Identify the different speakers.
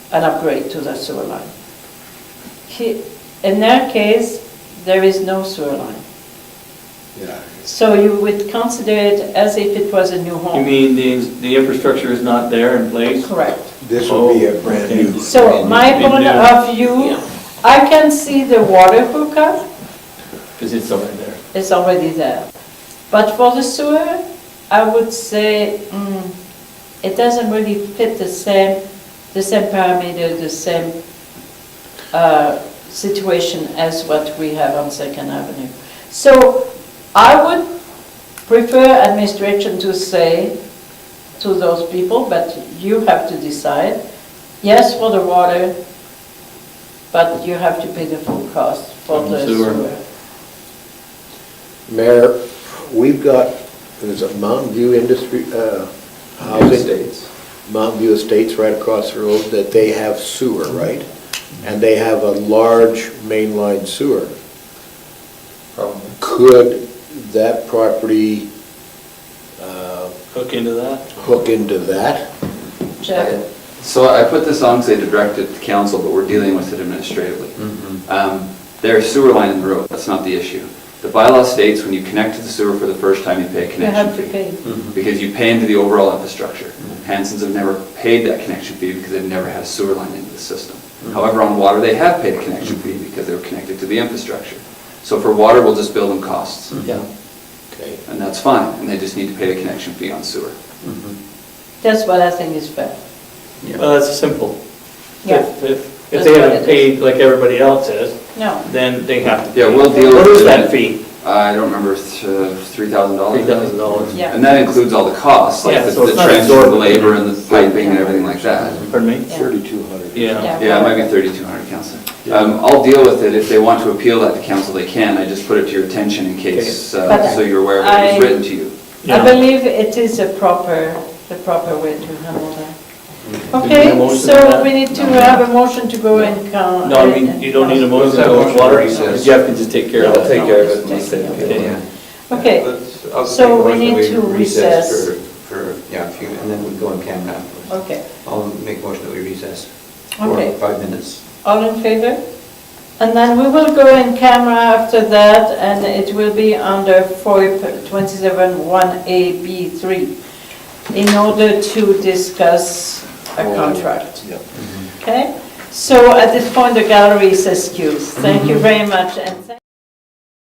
Speaker 1: an upgrade to the sewer line. He- In their case, there is no sewer line.
Speaker 2: Yeah.
Speaker 1: So you would consider it as if it was a new home.
Speaker 3: You mean the, the infrastructure is not there in place?
Speaker 1: Correct.
Speaker 2: This would be a brand new.
Speaker 1: So my
Speaker 3: Brand new.
Speaker 1: point of view, I can see the water hookup
Speaker 3: Because it's already there.
Speaker 1: is already there. But for the sewer, I would say, mm, it doesn't really fit the same, the same parameter, the same uh, situation as what we have on Second Avenue. So I would prefer administration to say to those people, but you have to decide, yes for the water, but you have to pay the full cost for
Speaker 3: On the
Speaker 1: the
Speaker 3: sewer.
Speaker 1: sewer.
Speaker 2: Mayor, we've got, there's a Mountain View Industry, uh, housing. Estates. Mountain View Estates right across the road that they have sewer, right? And they have a large mainline sewer. Could that property, uh,
Speaker 3: Hook into that?
Speaker 2: hook into that?
Speaker 1: Jeff?
Speaker 4: So I put this on because they directed the council, but we're dealing with it administratively. Um, There's sewer line in the road, that's not the issue. The bylaw states when you connect to the sewer for the first time, you pay a
Speaker 1: You have to
Speaker 4: connection fee.
Speaker 1: pay.
Speaker 4: Because you pay into the overall infrastructure. Hanson's have never paid that connection fee because they've never had a sewer line into the system. However, on water, they have paid a connection fee because they were connected to the infrastructure. So for water, we'll just bill them costs,
Speaker 3: Yeah.
Speaker 2: Okay.
Speaker 4: and that's fine, and they just need to pay a connection fee on sewer.
Speaker 1: That's what I think is fair.
Speaker 3: Well, that's simple.
Speaker 1: Yeah.
Speaker 3: If, if- if
Speaker 1: That's
Speaker 3: they
Speaker 1: what
Speaker 3: haven't
Speaker 1: it
Speaker 3: paid like everybody else has,
Speaker 1: No.
Speaker 3: then they have to.
Speaker 4: Yeah, we'll deal
Speaker 3: What
Speaker 4: with
Speaker 3: is
Speaker 4: it.
Speaker 3: that fee?
Speaker 4: I don't remember, th- uh, $3,000?
Speaker 3: $3,000.
Speaker 1: Yeah.
Speaker 4: And that includes all the costs,
Speaker 3: Yeah,
Speaker 4: like the
Speaker 3: so it's
Speaker 4: the
Speaker 3: not
Speaker 4: transfer, the
Speaker 3: absorbent.
Speaker 4: labor, and the piping, and everything like that.
Speaker 3: Pardon me?
Speaker 1: Yeah.
Speaker 2: Thirty-two hundred.
Speaker 3: Yeah.
Speaker 4: Yeah, it might be 3,200, Counselor. Um, I'll deal with it, if they want to appeal that to council, they can, I just put it to your attention in case,
Speaker 1: But
Speaker 4: uh, so you're aware of what
Speaker 1: I-
Speaker 4: was written to you.
Speaker 1: I believe it is a proper, the proper way to handle that.
Speaker 3: Do you need a
Speaker 1: Okay,
Speaker 3: motion on
Speaker 1: so
Speaker 3: that?
Speaker 1: we need to have a motion to go and count.
Speaker 3: Mm-hmm. No, I mean, you don't need a motion to go with water. Jeff can just take care of that.
Speaker 5: I'll take care of it.
Speaker 1: Just
Speaker 5: myself.
Speaker 1: take
Speaker 3: Okay.
Speaker 1: Okay,
Speaker 5: Let's- I'll
Speaker 1: so
Speaker 5: take a
Speaker 1: we need
Speaker 5: motion
Speaker 1: to recess.
Speaker 5: For, for, yeah, a few, and then we go in camera afterwards.
Speaker 1: okay.
Speaker 5: I'll make a motion that we recess
Speaker 1: Okay.
Speaker 5: for five minutes.
Speaker 1: All in favor? And then we will go in camera after that, and it will be under FOIP 271AB3 in order to discuss a contract. Okay? So at this point, the gallery is excused. Thank you very much, and thank